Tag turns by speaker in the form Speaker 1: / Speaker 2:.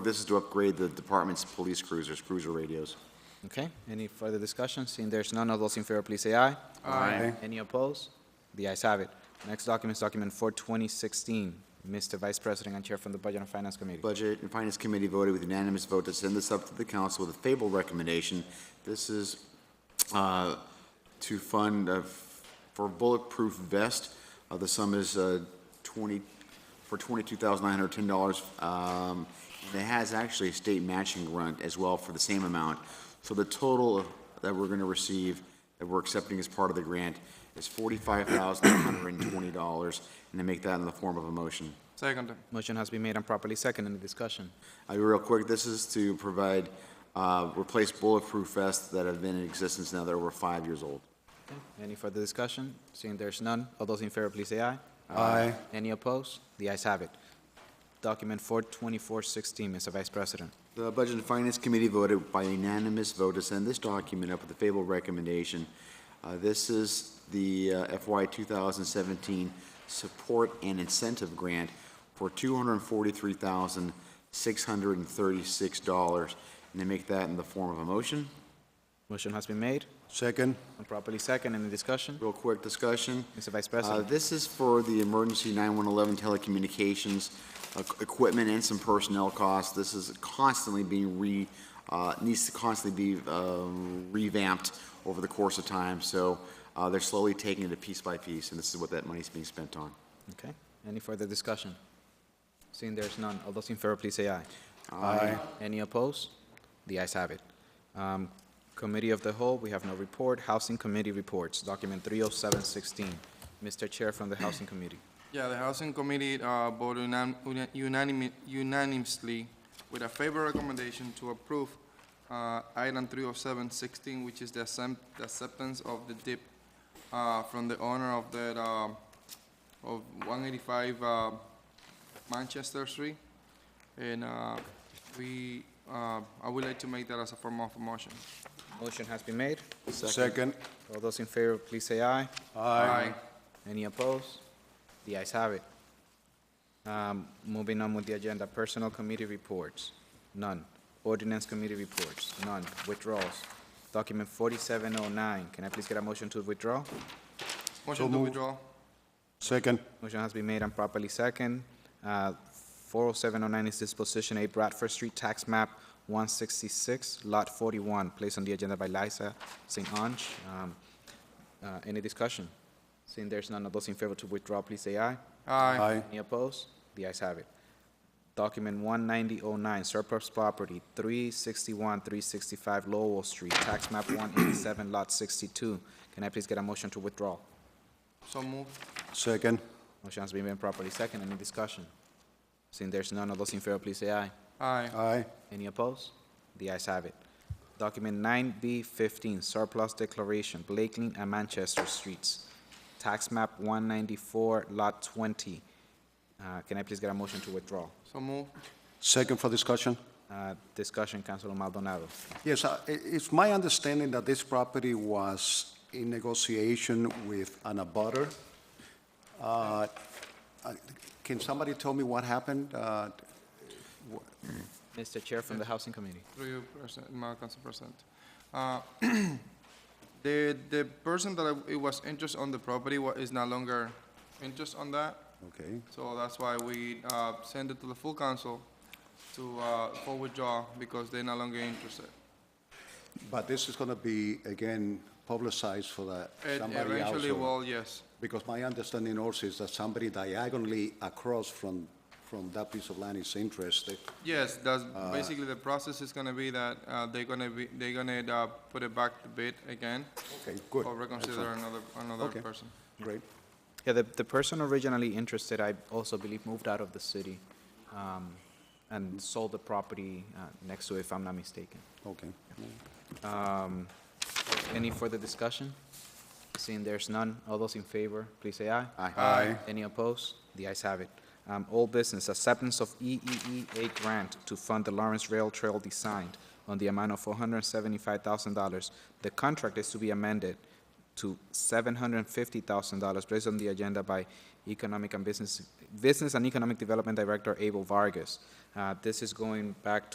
Speaker 1: This is to upgrade the department's police cruisers, cruiser radios.
Speaker 2: Okay, any further discussion? Seeing there's none, all those in favor, please say aye.
Speaker 1: Aye.
Speaker 2: Any opposed? The ayes have it. Next document is document 42016. Mr. Vice President and Chair from the Budget and Finance Committee.
Speaker 1: Budget and Finance Committee voted with unanimous vote to send this up to the council with a favorable recommendation. This is uh, to fund uh, for bulletproof vest. Uh, The sum is uh, 20, for $22,910. Um, and It has actually a state matching grant as well for the same amount. So the total that we're going to receive, that we're accepting as part of the grant, is $45,120. And to make that in the form of a motion.
Speaker 3: Second.
Speaker 2: Motion has been made and properly seconded. Any discussion?
Speaker 1: Uh, Real quick, this is to provide, uh, replace bulletproof vests that have been in existence now that are over five years old.
Speaker 2: Any further discussion? Seeing there's none, all those in favor, please say aye.
Speaker 3: Aye.
Speaker 2: Any opposed? The ayes have it. Document 42416, Mr. Vice President.
Speaker 1: The Budget and Finance Committee voted by unanimous vote to send this document up with a favorable recommendation. Uh, This is the uh, FY 2017 Support and Incentive Grant for $243,636. And to make that in the form of a motion.
Speaker 2: Motion has been made
Speaker 3: Second.
Speaker 2: and properly seconded. Any discussion?
Speaker 1: Real quick discussion.
Speaker 2: Mr. Vice
Speaker 1: Uh,
Speaker 2: President.
Speaker 1: This is for the emergency 911 telecommunications uh, equipment and some personnel costs. This is constantly being re, uh, needs to constantly be um, revamped over the course of time. So uh, they're slowly taking it piece by piece, and this is what that money's being spent on.
Speaker 2: Okay, any further discussion? Seeing there's none, all those in favor, please say aye.
Speaker 3: Aye.
Speaker 2: Any opposed? The ayes have it. Um, Committee of the Whole, we have no report. Housing Committee reports, document 30716. Mr. Chair from the Housing Committee.
Speaker 4: Yeah, the Housing Committee uh, voted unan- unan- unanimi- unanimously with a favorable recommendation to approve uh, item 30716, which is the accept- the acceptance of the DIP uh, from the owner of that, um, of 185 uh, Manchester Street. And uh, we, uh, I would like to make that as a form of a motion.
Speaker 2: Motion has been made.
Speaker 3: Second.
Speaker 2: All those in favor, please say aye.
Speaker 4: Aye.
Speaker 2: Any opposed? The ayes have it. Um, Moving on with the agenda, Personnel Committee reports, none. Ordinance Committee reports, none. Withdrawals, document 4709. Can I please get a motion to withdraw?
Speaker 4: Motion to
Speaker 3: moved.
Speaker 4: withdraw.
Speaker 3: Second.
Speaker 2: Motion has been made and properly second. Uh, 40709 is disposition A Bradford Street, tax map 166, lot 41, placed on the agenda by Liza St. Ange. Um, uh, Any discussion? Seeing there's none, of those in favor to withdraw, please say aye.
Speaker 4: Aye.
Speaker 2: Any opposed? The ayes have it. Document 19009, surplus property, 361, 365 Lowell Street, tax map 187, lot 62. Can I please get a motion to withdraw?
Speaker 4: So moved.
Speaker 3: Second.
Speaker 2: Motion has been made properly second. Any discussion? Seeing there's none, all those in favor, please say aye.
Speaker 4: Aye.
Speaker 3: Aye.
Speaker 2: Any opposed? The ayes have it. Document 9B15, surplus declaration, Blakeling and Manchester Streets, tax map 194, lot 20. Uh, Can I please get a motion to withdraw?
Speaker 4: So moved.
Speaker 3: Second for discussion.
Speaker 2: Uh, Discussion, Councilor Maldonado.
Speaker 3: Yes, uh, i- it's my understanding that this property was in negotiation with an abutter. Uh, I- Can somebody tell me what happened? Uh,
Speaker 2: Mr. Chair from the Housing Committee.
Speaker 4: Through you, President, Madam Council President. Uh, The, the person that I- it was interest on the property wa- is no longer interest on that,
Speaker 3: Okay,
Speaker 4: so that's why we uh, send it to the full council to, uh, for withdrawal, because they're no longer interested.
Speaker 3: but this is going to be, again, publicized for that
Speaker 4: It
Speaker 3: somebody else.
Speaker 4: Eventually,
Speaker 3: or-
Speaker 4: well, yes,
Speaker 3: Because my understanding also is that somebody diagonally across from, from that piece of land is interested.
Speaker 4: yes, that's,
Speaker 3: Uh.
Speaker 4: basically, the process is gonna be that uh, they're gonna be, they're gonna uh, put it back to bid again,
Speaker 3: Okay, good.
Speaker 4: or reconsider another, another
Speaker 3: Okay.
Speaker 4: person.
Speaker 3: Great.
Speaker 2: Yeah, the, the person originally interested, I also believe, moved out of the city um, and sold the property uh, next to it, if I'm not mistaken.
Speaker 3: Okay.
Speaker 2: Any further discussion? Seeing there's none, all those in favor, please say aye.
Speaker 1: Aye.
Speaker 3: Aye.
Speaker 2: Any opposed? The ayes have it. Um, Old business, acceptance of E EEEA grant to fund the Lawrence Rail Trail design on the amount of $475,000. The contract is to be amended to $750,000, placed on the agenda by Economic and Business, Business and Economic Development Director Abel Vargas. Uh, This is going back